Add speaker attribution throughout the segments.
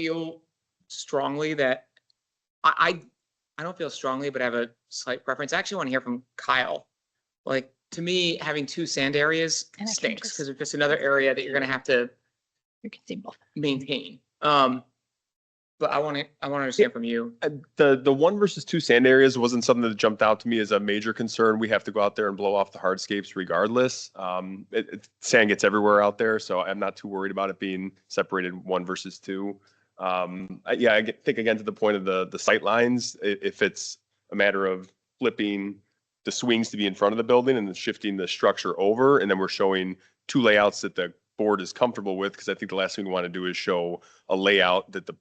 Speaker 1: feel strongly that I, I I don't feel strongly, but I have a slight preference. I actually want to hear from Kyle. Like to me, having two sand areas
Speaker 2: And I can
Speaker 1: stinks
Speaker 2: just-
Speaker 1: because it's just another area that you're gonna have to
Speaker 2: You can see both.
Speaker 1: maintain. Um, but I want to I want to understand from you.
Speaker 3: Uh, the the one versus two sand areas wasn't something that jumped out to me as a major concern. We have to go out there and blow off the hardscapes regardless. Um, it, it- sand gets everywhere out there, so I'm not too worried about it being separated one versus two. Um, I- yeah, I get- think again to the point of the the sight lines. i- If it's a matter of flipping the swings to be in front of the building and then shifting the structure over, and then we're showing two layouts that the board is comfortable with, because I think the last thing we want to do is show a layout that the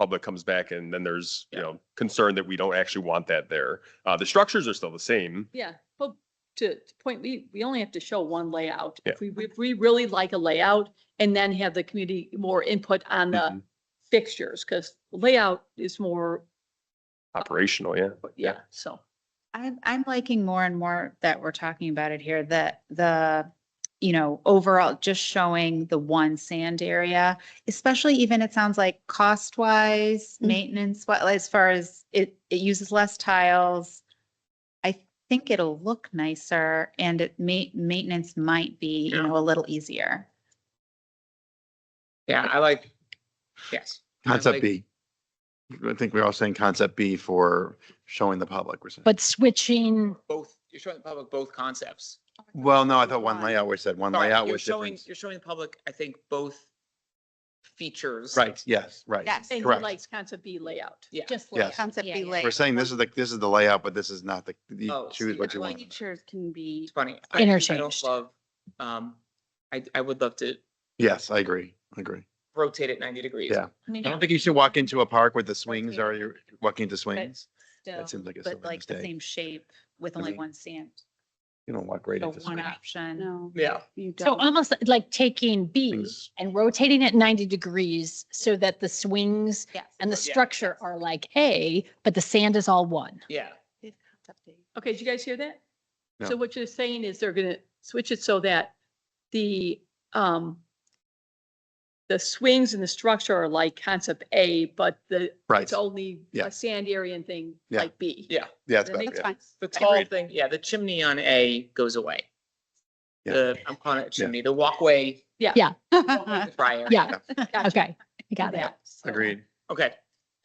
Speaker 3: public comes back and then there's, you
Speaker 1: Yeah.
Speaker 3: know, concern that we don't actually want that there. Uh, the structures are still the same.
Speaker 4: Yeah, but to, to point, we, we only have to show one layout.
Speaker 3: Yeah.
Speaker 4: If we, if we really like a layout and then have the community more input on the
Speaker 5: Mm-hmm.
Speaker 3: Mhm.
Speaker 4: fixtures, because layout is more,
Speaker 3: Operational, yeah.
Speaker 4: yeah, so.
Speaker 2: I'm, I'm liking more and more that we're talking about it here, that the, you know, overall, just showing the one sand area, especially even it sounds like cost wise,
Speaker 4: Mm.
Speaker 2: maintenance, what, as far as it, it uses less tiles. I think it'll look nicer and it ma- maintenance might be, you
Speaker 1: Yeah.
Speaker 2: know, a little easier.
Speaker 1: Yeah, I like. Yes. I
Speaker 5: Concept
Speaker 1: like-
Speaker 5: B. I think we're all saying concept B for showing the public. we're saying.
Speaker 6: But switching,
Speaker 1: Both you're showing the public both concepts.
Speaker 5: Well, no, I thought one layout, we said one
Speaker 1: Sorry,
Speaker 5: layout
Speaker 1: you're
Speaker 5: was
Speaker 1: showing
Speaker 5: different.
Speaker 1: you're showing the public. I think both features.
Speaker 5: Right, yes, right.
Speaker 4: And he
Speaker 5: Correct.
Speaker 4: likes concept B layout.
Speaker 1: Yeah.
Speaker 7: Just
Speaker 5: Yes.
Speaker 7: like concept
Speaker 2: Yeah,
Speaker 7: be
Speaker 2: yeah.
Speaker 7: laid.
Speaker 5: We're saying this is the, this is the layout, but this is not the, you
Speaker 1: Oh, see,
Speaker 5: choose what
Speaker 1: I
Speaker 5: you
Speaker 1: like-
Speaker 5: want.
Speaker 7: Pictures can be,
Speaker 1: It's funny. I- I don't
Speaker 6: Interchanged.
Speaker 1: Love. Um, I I would love to
Speaker 5: Yes, I agree, I agree.
Speaker 1: rotate it 90 degrees.
Speaker 5: Yeah. I don't think you should walk into a park with the swings or you're walking into swings.
Speaker 2: Still,
Speaker 5: That seems like a silly
Speaker 2: But like the
Speaker 5: mistake.
Speaker 2: same shape with
Speaker 5: I
Speaker 2: only
Speaker 5: mean,
Speaker 2: one sand,
Speaker 5: You don't walk right
Speaker 2: so
Speaker 5: into
Speaker 2: one
Speaker 5: swings.
Speaker 2: option.
Speaker 7: no.
Speaker 1: Yeah.
Speaker 7: you
Speaker 6: so
Speaker 7: don't.
Speaker 6: almost like taking B
Speaker 5: Things-
Speaker 6: and rotating it ninety degrees so that the swings
Speaker 2: Yes.
Speaker 6: and the
Speaker 1: Yeah.
Speaker 6: structure are like A, but the sand is all one.
Speaker 1: Yeah.
Speaker 7: It's concept be.
Speaker 4: Okay, did you guys hear that? So
Speaker 5: No.
Speaker 4: what you're saying is they're gonna switch it so that the, um, the swings and the structure are like concept A, but the,
Speaker 5: Right,
Speaker 4: it's only
Speaker 5: Yeah.
Speaker 4: a sand area and thing
Speaker 5: Yeah.
Speaker 4: like B.
Speaker 1: Yeah.
Speaker 5: yeah, it's
Speaker 4: That
Speaker 5: better,
Speaker 4: makes
Speaker 7: That's
Speaker 5: yeah.
Speaker 7: fine.
Speaker 1: The tall
Speaker 5: Agreed.
Speaker 1: thing. Yeah. The chimney on A goes away.
Speaker 5: Yeah.
Speaker 1: The I'm calling it a chimney. The walkway.
Speaker 4: Yeah.
Speaker 6: Yeah.
Speaker 1: walkway prior.
Speaker 6: Uh-huh. Yeah,
Speaker 4: Gotcha.
Speaker 6: okay, I
Speaker 4: Do
Speaker 6: got it.
Speaker 4: that. So-
Speaker 5: agreed.
Speaker 1: Okay.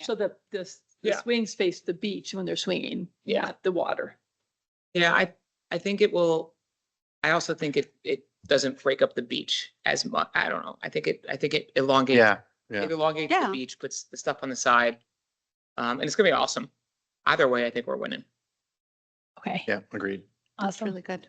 Speaker 4: So the, the, s- the
Speaker 1: Yeah.
Speaker 4: swings face the beach when they're swinging.
Speaker 1: Yeah.
Speaker 4: not The water.
Speaker 1: Yeah. I I think it will. I also think it it doesn't break up the beach as much. I don't know. I think it I think it elongates.
Speaker 5: Yeah, yeah.
Speaker 1: It elongates
Speaker 7: Yeah.
Speaker 1: the beach, puts the stuff on the side, um, and it's gonna be awesome. Either way, I think we're winning.
Speaker 6: Okay,
Speaker 5: yeah, agreed.
Speaker 7: That's
Speaker 6: awesome.
Speaker 7: really good.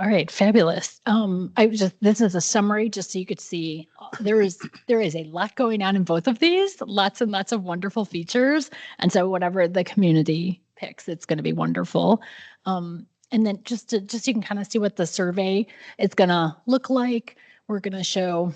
Speaker 6: All right, fabulous. Um, I was just, this is a summary, just so you could see, uh, there is, there is a lot going on in both of these, lots and lots of wonderful features. And so whatever the community picks, it's going to be wonderful. Um, and then just to, just so you can kind of see what the survey is going to look like. We're going to show,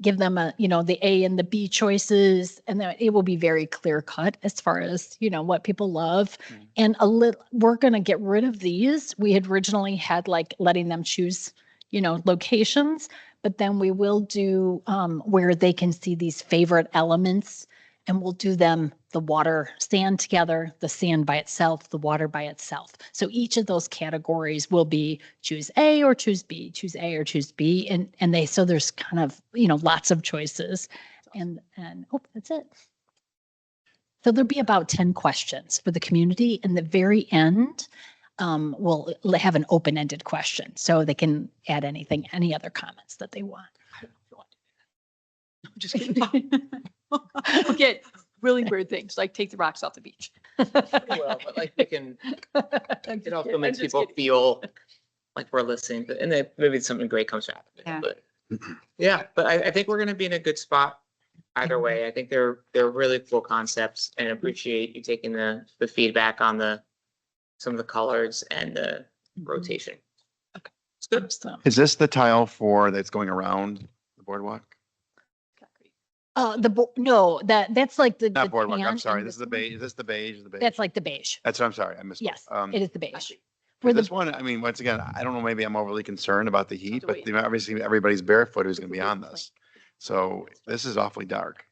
Speaker 6: give them a, you know, the A and the B choices, and then it will be very clear cut as far as, you know, what people love.
Speaker 5: Mhm.
Speaker 6: And a little, we're going to get rid of these. We had originally had like letting them choose, you know, locations, but then we will do um, where they can see these favorite elements and we'll do them the water sand together, the sand by itself, the water by itself. So each of those categories will be choose A or choose B, choose A or choose B, and and they so there's kind of you know lots of choices, and and oh that's it. So there'll be about ten questions for the community, and the very end. Um, we'll l- have an open-ended question, so they can add anything, any other comments that they want.
Speaker 4: I'm just kidding. We'll Get really weird things, like take the rocks off the beach.
Speaker 1: Well, but like we can
Speaker 4: I'm just
Speaker 1: It also
Speaker 4: kidding.
Speaker 1: makes
Speaker 4: I'm just
Speaker 1: people
Speaker 4: kidding.
Speaker 1: feel like we're listening, but- and then maybe something great comes out of
Speaker 2: Yeah.
Speaker 1: it. But yeah, but I, I think we're gonna be in a good spot either
Speaker 4: Mm-hmm.
Speaker 1: way. I think they're, they're really cool concepts and appreciate you taking the, the feedback on the, some of the colors and the
Speaker 4: Mm-hmm.
Speaker 1: rotation.
Speaker 6: Okay.
Speaker 1: It's good.
Speaker 6: Awesome.
Speaker 5: Is this the tile for that's going around the boardwalk?
Speaker 6: Uh, the bo- no, that that's like the the
Speaker 5: Not boardwalk,
Speaker 6: tan
Speaker 5: I'm sorry,
Speaker 6: and
Speaker 5: this is the
Speaker 6: one.
Speaker 5: beige, is this the beige? The beige?
Speaker 6: That's like the beige.
Speaker 5: That's what I'm sorry, I missed.
Speaker 6: Yes,
Speaker 5: Um,
Speaker 6: it is the beige.
Speaker 5: For
Speaker 6: Where the
Speaker 5: this one, I mean, once again, I don't know, maybe I'm overly concerned about the heat,
Speaker 4: the
Speaker 5: but
Speaker 4: weight.
Speaker 5: the- obviously everybody's barefoot who's gonna be
Speaker 4: It's a
Speaker 5: on
Speaker 4: big
Speaker 5: this. So this is awfully dark.